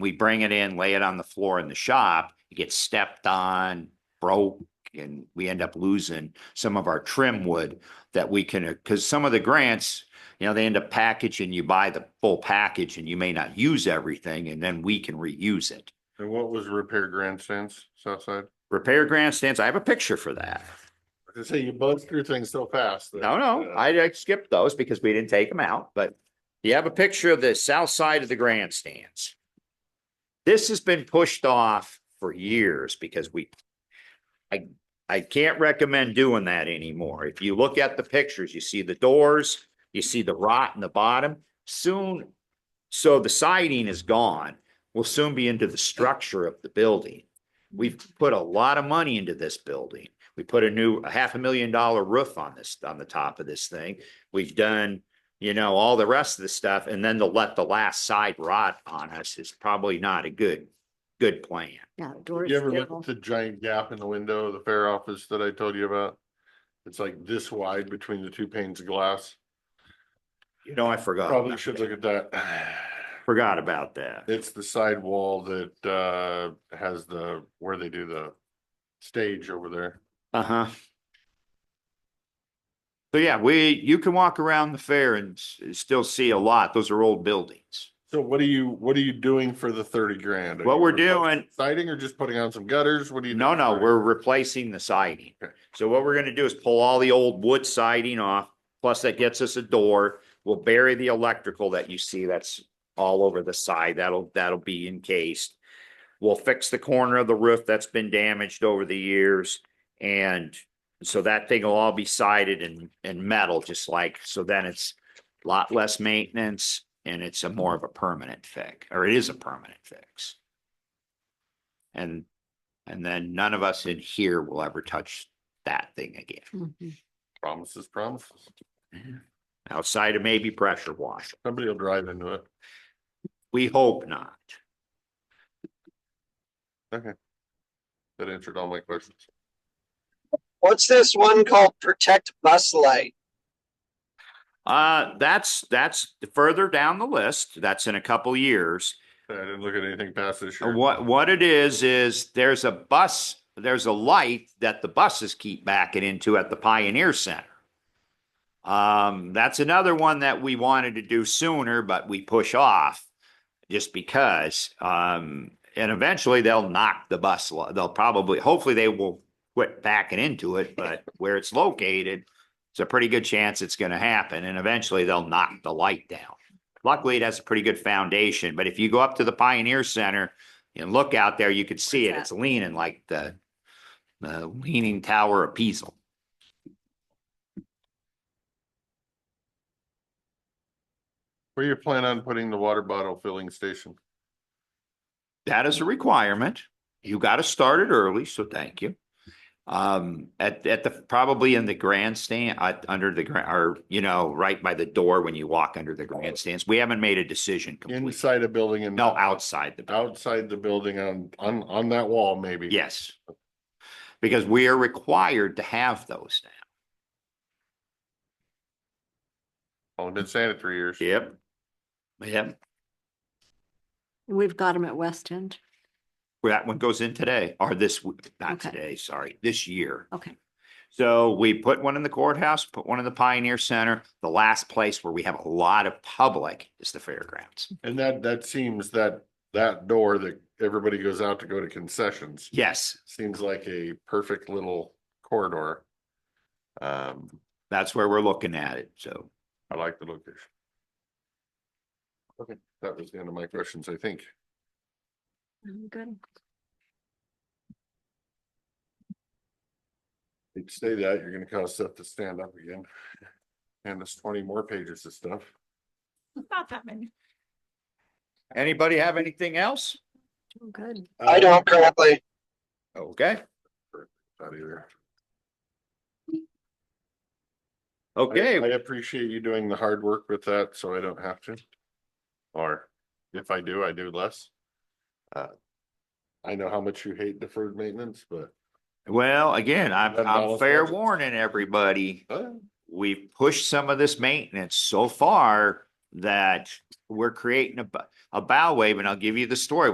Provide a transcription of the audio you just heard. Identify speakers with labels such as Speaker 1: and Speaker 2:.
Speaker 1: we bring it in, lay it on the floor in the shop, it gets stepped on, broke, and we end up losing some of our trim wood that we can, because some of the grants, you know, they end up packaging, you buy the full package and you may not use everything, and then we can reuse it.
Speaker 2: And what was the repair grandstands, south side?
Speaker 1: Repair grandstands, I have a picture for that.
Speaker 2: I say you buzz through things so fast.
Speaker 1: No,
Speaker 2: uh,
Speaker 1: no, I I skipped those because we didn't take them out, but you have a picture of the south side of the grandstands. This has been pushed off for years because we, I, I can't recommend doing that anymore. If you look at the pictures, you see the doors, you see the rot in the bottom, soon. So the siding is gone, we'll soon be into the structure of the building. We've put a lot of money into this building. We put a new, a half a million dollar roof on this, on the top of this thing. We've done, you know, all the rest of the stuff, and then to let the last side rot on us is probably not a good, good plan.
Speaker 3: Yeah, the door is
Speaker 2: You ever look
Speaker 3: terrible.
Speaker 2: at the giant gap in the window of the fair office that I told you about? It's like this wide between the two panes of glass.
Speaker 1: You know, I forgot.
Speaker 2: Probably
Speaker 1: about
Speaker 2: should
Speaker 1: that.
Speaker 2: look at that.
Speaker 1: Forgot about that.
Speaker 2: It's the side wall that uh has the, where they do the stage over there.
Speaker 1: Uh-huh. So yeah, we, you can walk around the fair and s- still see a lot. Those are old buildings.
Speaker 2: So what are you, what are you doing for the thirty grand? Are
Speaker 1: What
Speaker 2: you
Speaker 1: we're
Speaker 2: replacing
Speaker 1: doing-
Speaker 2: Siding or just putting on some gutters? What do you?
Speaker 1: No,
Speaker 2: doing
Speaker 1: no,
Speaker 2: for it?
Speaker 1: we're replacing the siding.
Speaker 2: Okay.
Speaker 1: So what we're gonna do is pull all the old wood siding off, plus that gets us a door. We'll bury the electrical that you see that's all over the side. That'll, that'll be encased. We'll fix the corner of the roof that's been damaged over the years. And so that thing will all be sided and, and metal, just like, so then it's a lot less maintenance and it's a more of a permanent fix, or it is a permanent fix. And and then none of us in here will ever touch that thing again,
Speaker 3: Mhm.
Speaker 2: Promises, promises.
Speaker 1: outside of maybe pressure washing.
Speaker 2: Somebody will drive into it.
Speaker 1: We hope not.
Speaker 2: That answered all my questions.
Speaker 4: What's this one called Protect Bus Light?
Speaker 1: Uh, that's, that's further down the list. That's in a couple years.
Speaker 2: I didn't look at anything past this year.
Speaker 1: What, what it is, is there's a bus, there's a light that the buses keep backing into at the Pioneer Center. Um, that's another one that we wanted to do sooner, but we push off just because. Um, and eventually they'll knock the bus, li- they'll probably, hopefully they will quit backing into it, but where it's located, it's a pretty good chance it's gonna happen, and eventually they'll knock the light down. Luckily, it has a pretty good foundation, but if you go up to the Pioneer Center and look out there, you could see it,
Speaker 3: Where's that?
Speaker 1: it's leaning like the the leaning tower of Pisa.
Speaker 2: Where you plan on putting the water bottle filling station?
Speaker 1: that is a requirement. You got to start it early, so thank you. Um, at, at the, probably in the grandstand, uh, under the grand, or, you know, right by the door when you walk under the grandstands. We haven't made a decision completely.
Speaker 2: Inside a building and.
Speaker 1: No, outside the, building.
Speaker 2: Outside the building on, on, on that wall maybe?
Speaker 1: yes. Because we are required to have those now.
Speaker 2: Only Oh, been saying it three years.
Speaker 1: Yep. Yep,
Speaker 3: We've got them at West End.
Speaker 1: Well, that one goes in today, or this, w- not
Speaker 3: Okay.
Speaker 1: today, sorry, this year.
Speaker 3: Okay.
Speaker 1: So we put one in the courthouse, put one in the Pioneer Center. The last place where we have a lot of public is the fairgrounds.
Speaker 2: And that, that seems that, that door that everybody goes out to go to concessions,
Speaker 1: Yes,
Speaker 2: seems like a perfect little corridor. Um,
Speaker 1: that's where we're looking at it. So
Speaker 2: I like the location. Okay, that was the end of my questions, I think.
Speaker 5: Mm-hmm,
Speaker 3: Good.
Speaker 2: If you say that, you're gonna cause Seth to stand up again. And there's twenty more pages of stuff.
Speaker 5: Not that many.
Speaker 1: anybody have anything else?
Speaker 3: Oh, Good.
Speaker 4: I
Speaker 2: Uh,
Speaker 4: don't currently.
Speaker 1: Okay,
Speaker 2: Not either. I- I
Speaker 1: okay.
Speaker 2: appreciate you doing the hard work with that, so I don't have to. Or if I do, I do less. Uh, I know how much you hate deferred maintenance, but
Speaker 1: Well, again, I'm,
Speaker 2: That
Speaker 1: I'm
Speaker 2: dollar
Speaker 1: fair
Speaker 2: sign.
Speaker 1: warning everybody.
Speaker 2: uh,
Speaker 1: We've pushed some of this maintenance so far that we're creating a, bu- a bow wave and I'll give you the story.